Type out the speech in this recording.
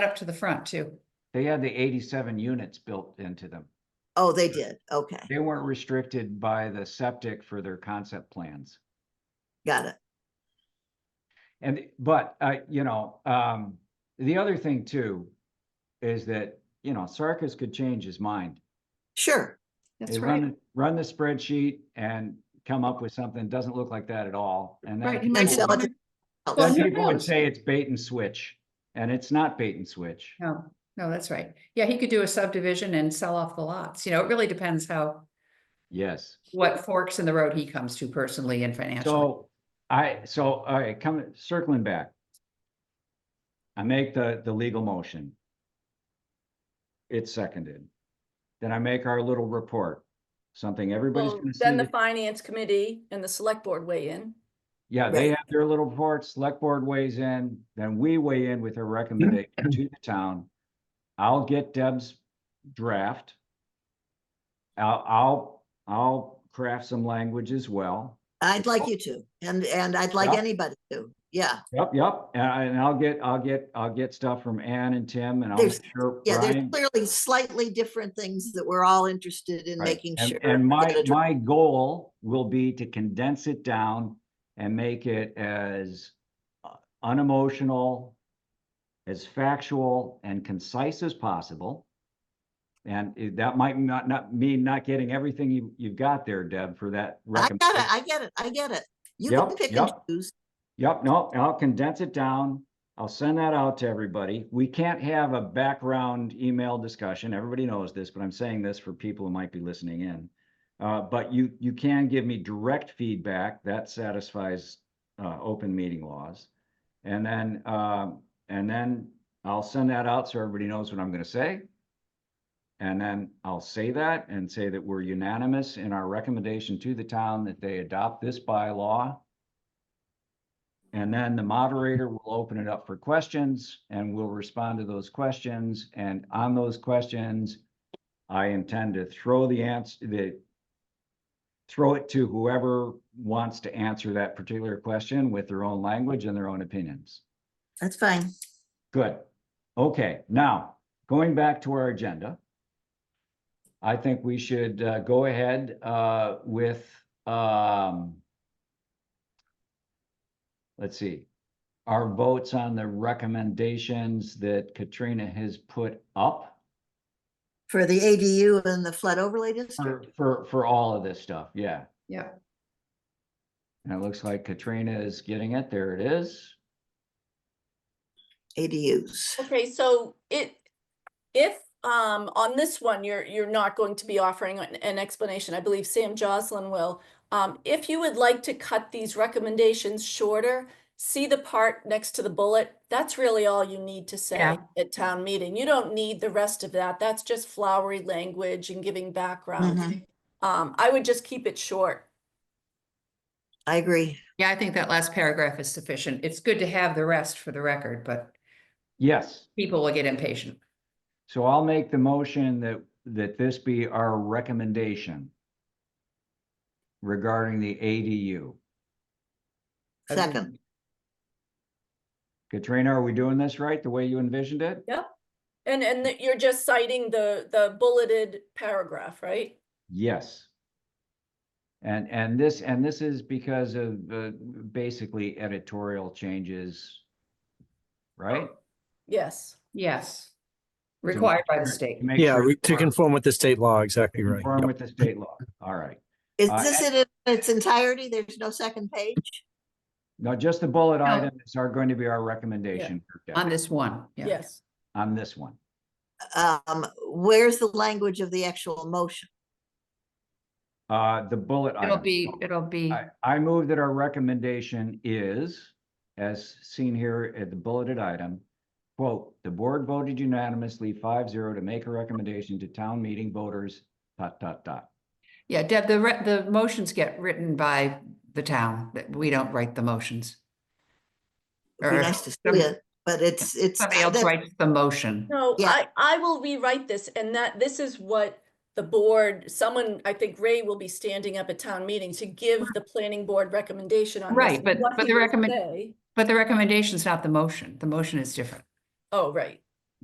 up to the front too. They had the eighty-seven units built into them. Oh, they did. Okay, They weren't restricted by the septic for their concept plans. got it. And, but, uh, you know, um, the other thing too is that, you know, Sarkis could change his mind. Sure. That's They right. run, run the spreadsheet and come up with something, doesn't look like that at all, and Right. then. he might And just people sell would- it wanna- Well, Oh, that's- who People would knows? say it's bait and switch, and it's not bait and switch. No, no, that's right. Yeah, he could do a subdivision and sell off the lots. You know, it really depends how, Yes. what forks in the road he comes to personally and financially. So I, so, all right, come, circling back. I make the, the legal motion. It's seconded. Then I make our little report, something everybody's Well, gonna see. then the that- finance committee and the select board weigh in. Yeah, they Right. have their little report, select board weighs in, then we weigh in with a recommendation to the town. I'll get Deb's draft. I'll, I'll, I'll craft some language as well. I'd like you to, and, and I'd like Yeah. anybody to. Yeah, Yep, yep, and I, and I'll get, I'll get, I'll get stuff from Ann and Tim and I'll There's- make sure yeah, there's Brian. clearly slightly different things that we're all interested in right, making and- sure. And my, get it my goal will be to condense it down and make it as uh, unemotional, as factual and concise as possible. And it- that might not, not mean not getting everything you, you've got there, Deb, for that. I got it, recommendation. I get it, I get it. You can Yep, pick and yep. choose. Yep, no, I'll condense it down. I'll send that out to everybody. We can't have a background email discussion. Everybody knows this, but I'm saying this for people who might be listening in. Uh, but you, you can give me direct feedback. That satisfies, uh, open meeting laws. And then, um, and then I'll send that out so everybody knows what I'm gonna say. And then I'll say that and say that we're unanimous in our recommendation to the town that they adopt this bylaw. And then the moderator will open it up for questions and we'll respond to those questions. And on those questions, I intend to throw the answer, the throw it to whoever wants to answer that particular question with their own language and their own opinions. That's fine. Good. Okay, now, going back to our agenda. I think we should uh, go ahead uh, with, um, let's see, our votes on the recommendations that Katrina has put up For the ADU and the flood overlay for, district, for, for all of this stuff, yeah. Yeah, And it looks like Katrina is getting it. There it is. ADUs. Okay, so it, if, um, on this one, you're, you're not going to be offering an, an explanation, I believe Sam Joslin will. Um, if you would like to cut these recommendations shorter, see the part next to the bullet. That's really all you need to say Yeah. at town meeting. You don't need the rest of that. That's just flowery language and giving background. Mhm. Um, I would just keep it short. I agree. yeah, I think that last paragraph is sufficient. It's good to have the rest for the record, but Yes. people will get impatient. So I'll make the motion that, that this be our recommendation regarding the ADU. Second, Katrina, are we doing this right, the way you envisioned it? And, and that you're just citing the, the bulleted paragraph, right? Yes. And, and this, and this is because of, uh, basically editorial changes, right? Yes. Yes. Required by the To state. make Yeah, sure re- it's to conform with the state law, exactly right. Conform Yep. with the state law. All right. is Uh, this it in its entirety? There's no second page? No, just the bullet No. items are going to be our recommendation for Deb On this one, yeah. Yes. on this one. Um, where's the language of the actual motion? Uh, the bullet item. It'll be, it'll be, I, I move that our recommendation is, as seen here at the bulleted item, quote, "The board voted unanimously 5-0 to make a recommendation to town meeting voters, dot, dot, dot." yeah, Deb, the, re- the motions get written by the town, that we don't write the motions. It'd Or be nice to some- see it, but it's, it's. Somebody else that's- writes the motion. No, Yeah. I, I will rewrite this and that, this is what the board, someone, I think Ray will be standing up at town meeting to give the planning board recommendation on this. Right, but- what but he the will recommend- say- But the recommendation's not the motion. The motion is different. Oh, right,